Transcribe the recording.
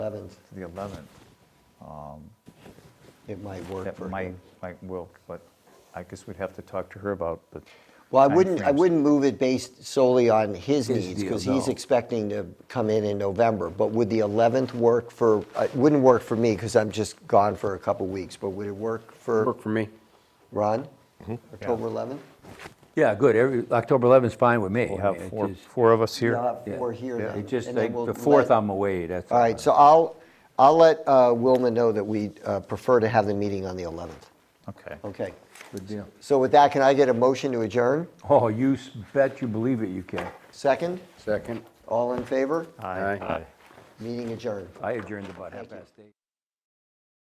11th, to the 11th. it might work That for might, him. might will, but I guess we'd have to talk to her about the. Well, I wouldn't, I timeframes. wouldn't move it based solely on his His needs, because deal, he's no. expecting to come in in November. But would the 11th work for, uh, it wouldn't work for me, because I'm just gone for a couple weeks, but would it work for Work for me. Ron? Mm-hmm. October 11th? Yeah, good. Every, October 11th is fine with me. We'll I have mean, it four, just- four of us here. We'll have yeah. four here then. It just, and then like, we'll the 4th, let- I'm away, that's. All right, so I'll, I'll let uh, Wilma know that we uh, prefer to have the meeting on the 11th. Okay. Okay. Good deal. So with that, can I get a motion to adjourn? Oh, you s- bet you believe it, you can. Second? Second. All in favor? Aye. Uh, Meeting adjourned. I adjourned about half Thank you. past eight.